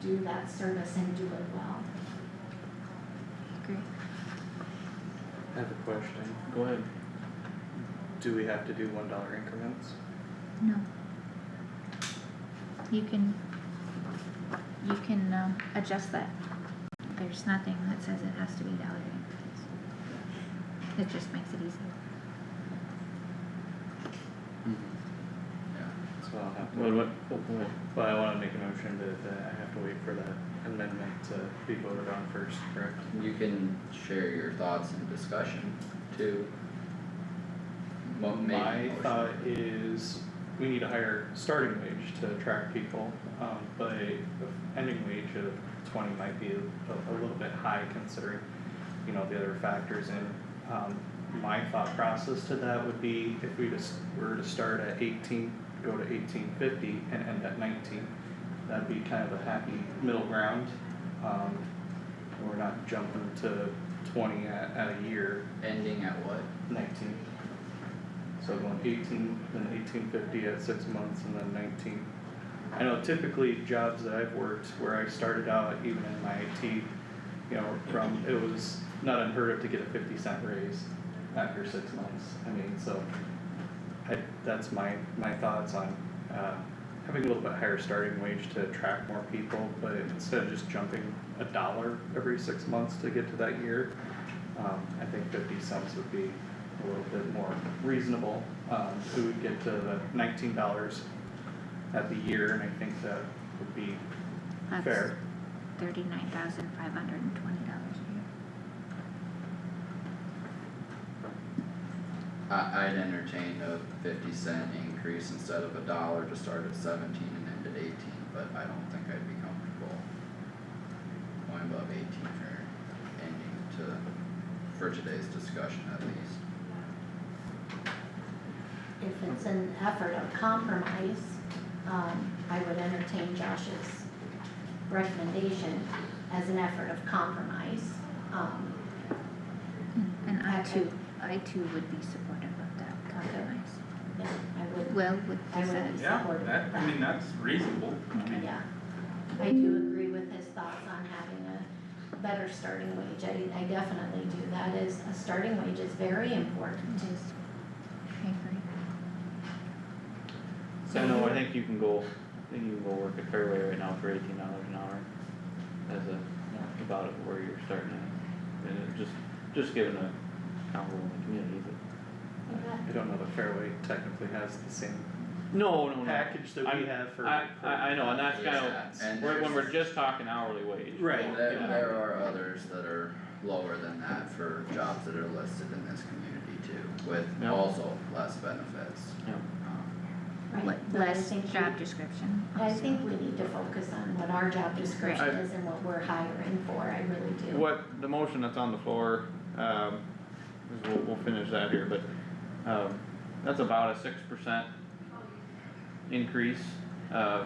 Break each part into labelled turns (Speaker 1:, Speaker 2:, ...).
Speaker 1: do that service and do it well.
Speaker 2: Agree.
Speaker 3: I have a question.
Speaker 4: Go ahead.
Speaker 3: Do we have to do one dollar increments?
Speaker 2: No. You can, you can, um, adjust that. There's nothing that says it has to be dollar increase. It just makes it easier.
Speaker 5: Mm-hmm.
Speaker 4: Yeah.
Speaker 3: So I'll have
Speaker 4: Well,
Speaker 3: to,
Speaker 4: what, oh, go ahead.
Speaker 3: well, I wanna make a motion that, that I have to wait for that amendment to be voted on first, correct?
Speaker 5: You can share your thoughts and discussion too. Mo- make a
Speaker 3: My
Speaker 5: motion.
Speaker 3: thought is, we need a higher starting wage to attract people, um, but the ending wage of twenty might be a, a little bit high considering, you know, the other factors in. Um, my thought process to that would be if we just were to start at eighteen, go to eighteen fifty and end at nineteen, that'd be kind of a happy middle ground. Um, we're not jumping to twenty at, at a year,
Speaker 5: Ending at what?
Speaker 3: nineteen. So going eighteen, then eighteen fifty at six months and then nineteen. I know typically jobs that I've worked where I started out even in my IT, you know, from, it was not unheard of to get a fifty cent raise after six months. I mean, so I, that's my, my thoughts on, uh, having a little bit higher starting wage to attract more people, but instead of just jumping a dollar every six months to get to that year, um, I think fifty cents would be a little bit more reasonable. Um, we would get to the nineteen dollars at the year, and I think that would be fair.
Speaker 2: Thirty-nine thousand five hundred and twenty dollars a year.
Speaker 5: I, I'd entertain a fifty cent increase instead of a dollar to start at seventeen and end at eighteen, but I don't think I'd be comfortable going above eighteen for ending to, for today's discussion at least.
Speaker 1: If it's an effort of compromise, um, I would entertain Josh's recommendation as an effort of compromise. Um, Hmm.
Speaker 2: And I
Speaker 1: Okay.
Speaker 2: too, I too would be supportive of that compromise.
Speaker 1: yeah, I would,
Speaker 2: Well, with
Speaker 1: I
Speaker 2: this,
Speaker 1: would be
Speaker 2: as-
Speaker 6: Yeah,
Speaker 1: supportive
Speaker 6: that,
Speaker 1: of
Speaker 6: I mean,
Speaker 1: that.
Speaker 6: that's reasonable. I mean,
Speaker 1: Yeah, I do agree with his thoughts on having a better starting wage, I, I definitely do, that is, a starting wage is very important.
Speaker 2: it is, I agree.
Speaker 4: So no, I think you can go, I think you can go work at Fairway right now for eighteen dollars an hour. As a, about it where you're starting at, and it just, just given a combo in the community, but.
Speaker 3: I don't know that Fairway technically has the same
Speaker 4: No, no, no,
Speaker 3: package that we
Speaker 4: I'm-
Speaker 3: have for.
Speaker 4: I, I, I know, and that's
Speaker 5: Yeah,
Speaker 4: kinda,
Speaker 5: and
Speaker 4: when, when we're
Speaker 5: there's-
Speaker 4: just talking hourly wage.
Speaker 3: Right,
Speaker 5: Well, There,
Speaker 3: yeah,
Speaker 5: there are others that are lower than that for jobs that are listed in this community too, with
Speaker 4: Yeah.
Speaker 5: also less benefits.
Speaker 4: Yeah.
Speaker 5: Um,
Speaker 1: Right,
Speaker 2: Le-
Speaker 1: but I
Speaker 2: Less
Speaker 1: think we-
Speaker 2: job description
Speaker 1: I
Speaker 2: also.
Speaker 1: think we need to focus on what our job description is and what we're hiring for, I really do.
Speaker 4: What, the motion that's on the floor, um, is we'll, we'll finish that here, but, um, that's about a six percent increase, uh,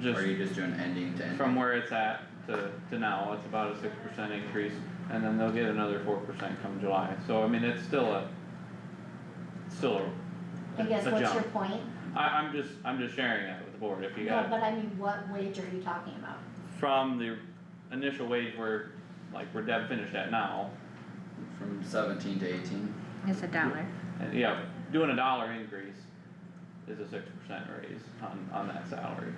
Speaker 4: just
Speaker 5: Or you just doing ending to
Speaker 4: from
Speaker 5: ending,
Speaker 4: where it's at to, to now, it's about a six percent increase, and then they'll get another four percent come July, so I mean, it's still a, still a,
Speaker 1: I guess,
Speaker 4: a
Speaker 1: what's your
Speaker 4: jump.
Speaker 1: point?
Speaker 4: I, I'm just, I'm just sharing that with the board, if you
Speaker 1: No,
Speaker 4: got,
Speaker 1: but I mean, what wage are you talking about?
Speaker 4: from the initial wage where, like, where Deb finished at now,
Speaker 5: from seventeen to eighteen,
Speaker 2: It's a dollar.
Speaker 4: And yeah, doing a dollar increase is a six percent raise on, on that salary.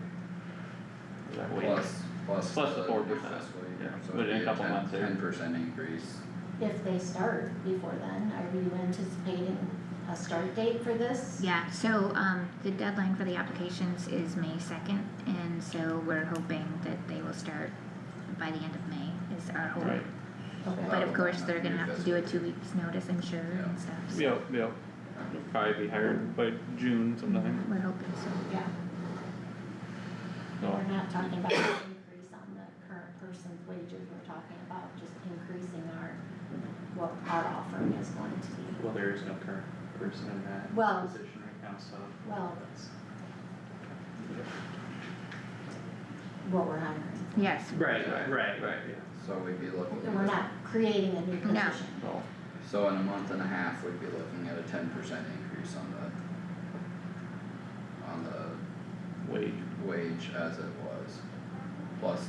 Speaker 4: Is that wage?
Speaker 5: plus, plus.
Speaker 4: Plus the
Speaker 5: fiscal
Speaker 4: 4%,
Speaker 5: year,
Speaker 4: yeah,
Speaker 5: so
Speaker 4: but
Speaker 5: it'd
Speaker 4: in a
Speaker 5: be
Speaker 4: couple
Speaker 5: ten-
Speaker 4: months there.
Speaker 5: Ten percent increase,
Speaker 1: If they start before then, are you anticipating a start date for this?
Speaker 2: Yeah, so, um, the deadline for the applications is May second, and so we're hoping that they will start by the end of May is our hope.
Speaker 4: Right,
Speaker 1: Okay,
Speaker 2: But of course, they're gonna have to do a two weeks notice, I'm sure, and stuff, so
Speaker 4: yep, yep. It'll Probably be hired by June sometime,
Speaker 2: we're hoping so.
Speaker 1: yeah,
Speaker 4: so.
Speaker 1: we're not talking about an increase on the current person's wages, we're talking about just increasing our, what our offering is going to be.
Speaker 3: well, there is no current person in that
Speaker 1: Well-
Speaker 3: position right now, so.
Speaker 1: Well,
Speaker 3: that's-
Speaker 1: what we're hiring,
Speaker 2: Yes,
Speaker 3: Right, right, right, yeah.
Speaker 5: so we'd be looking.
Speaker 1: we're not creating a new position.
Speaker 2: No.
Speaker 4: So,
Speaker 5: So in a month and a half, we'd be looking at a ten percent increase on the, on the
Speaker 4: wage,
Speaker 5: wage as it was. plus